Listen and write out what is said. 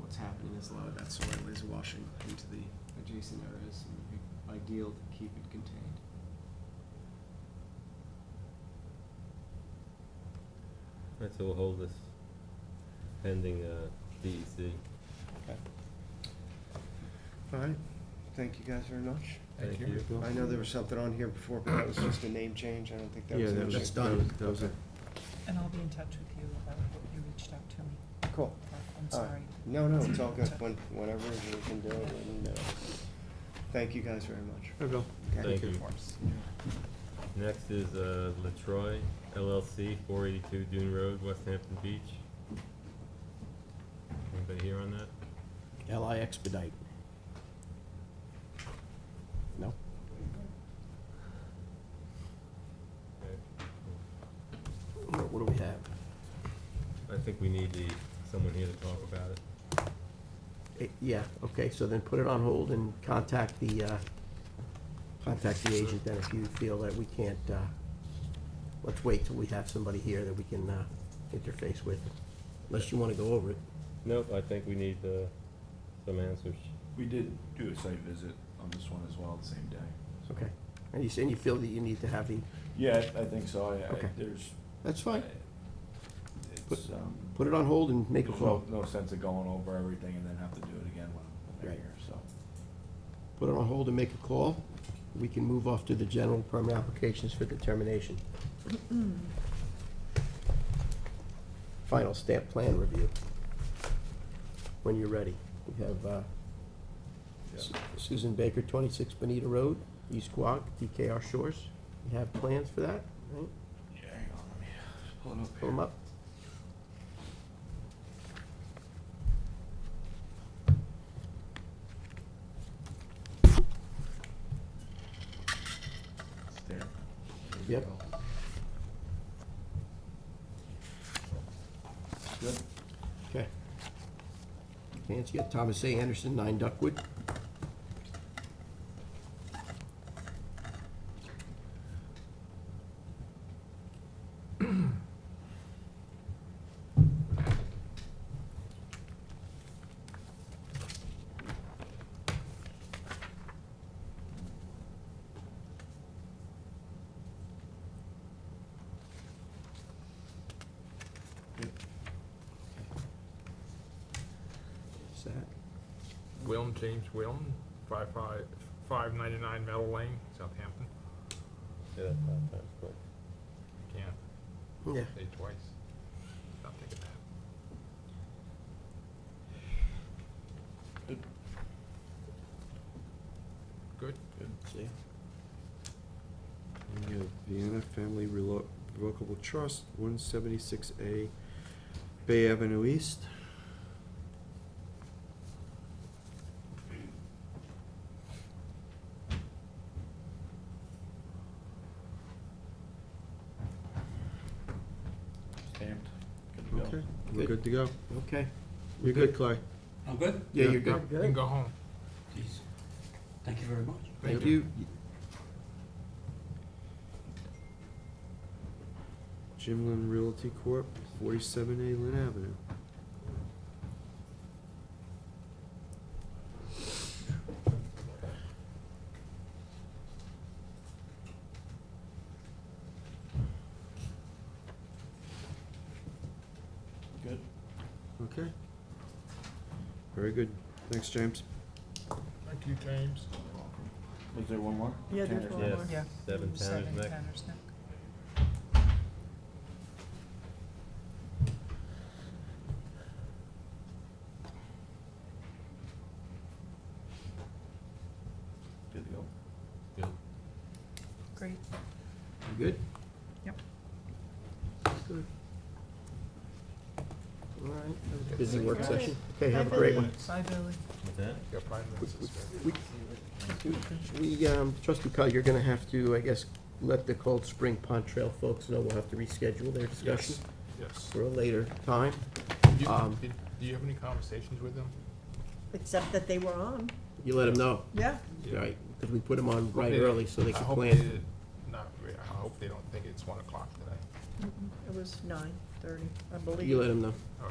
what's happening is a lot of that soil is washing into the adjacent areas, and it would be ideal to keep it contained. Alright, so we'll hold this pending, uh, DEC. Okay. All right, thank you guys very much. Thank you. I know there was something on here before, but that was just a name change, I don't think that was. an issue. That was it. And I'll be in touch with you about what you reached out to me. Cool. about. I'm All right. sorry. No, no, it's all good, when, whenever we can do it, and, uh, thank you guys very much. Hi, Bill. Thank you. Next is, uh, Latroy LLC, four eighty-two Dune Road, West Hampton Beach. Anybody here on that? LI expedite. No? Okay. What what do we have? I think we need the, someone here to talk about it. Eh, Yeah, okay, so then put it on hold and contact the, uh, contact the agent then if you feel that we can't, uh, let's wait till we have somebody here that we can uh, interface with, unless you want to go over it. Nope, I think we need, uh, some answers. We did do a site visit on this one as well, the same day. Okay. And you saying you feel that you need to have the, Yeah, I- I think so, I, I, Okay. there's. that's fine. It's, um, Put it on hold and make a there's no, call. no sense of going over everything and then have to do it again when I'm when Right. I'm here, so. Put it on hold and make a call. We can move off to the general permit applications for determination. Final stamp plan review. When you're ready. We have uh, Su- Susan Baker, 26 Bonita Road, East Quogue, DKR Shores. You have plans for that, right? Yeah, hang on, let me just pull it up Pull here. them up. It's there. Yep. Good. Okay. Plans, you got Thomas A. Anderson, 9 Duckwood. Is that? Wilm, James Wilm, five five, five ninety-nine Meadow Lane, Southampton. Yeah, that's not, that's quick. Can't Yeah. say twice. Stop thinking that. Good. See? And you have Vienna Family Relo- Revocable Trust, one seventy-six A Bay Avenue East. Stamped, good to go. Okay, we're good to go. Okay. You're good, Clay. I'm good. Yeah, you're You good. can go home. Jeez. Thank you very much. Thank you. Jim Lynn Realty Corp., forty-seven A Lynn Avenue. Good. Okay. Very good. Thanks, James. Thank you, James. Was there one more? Yeah, there's Tanner's one Yes. next. more. Yeah. Seven Tanner's Seven Neck. Tanner's Neck. Good to go. Great. You good? Yep. Good. All right. Busy work session. Okay, have a Bye, great Billy. one. Bye, Billy. What's that? You got five minutes to spare. We, we, um, trustee Cog, you're gonna have to, I guess, let the Cold Spring Pond Trail folks know we'll have to reschedule their discussion Yes, yes. for a later time. Do you- Um, did- Do you have any conversations with them? Except that they were on. You let them know, Yeah. right, because we put them on right They- early so they I can hope plan. they- Not, re- I hope they don't think it's one o'clock today. It was nine thirty, I believe. You let them know.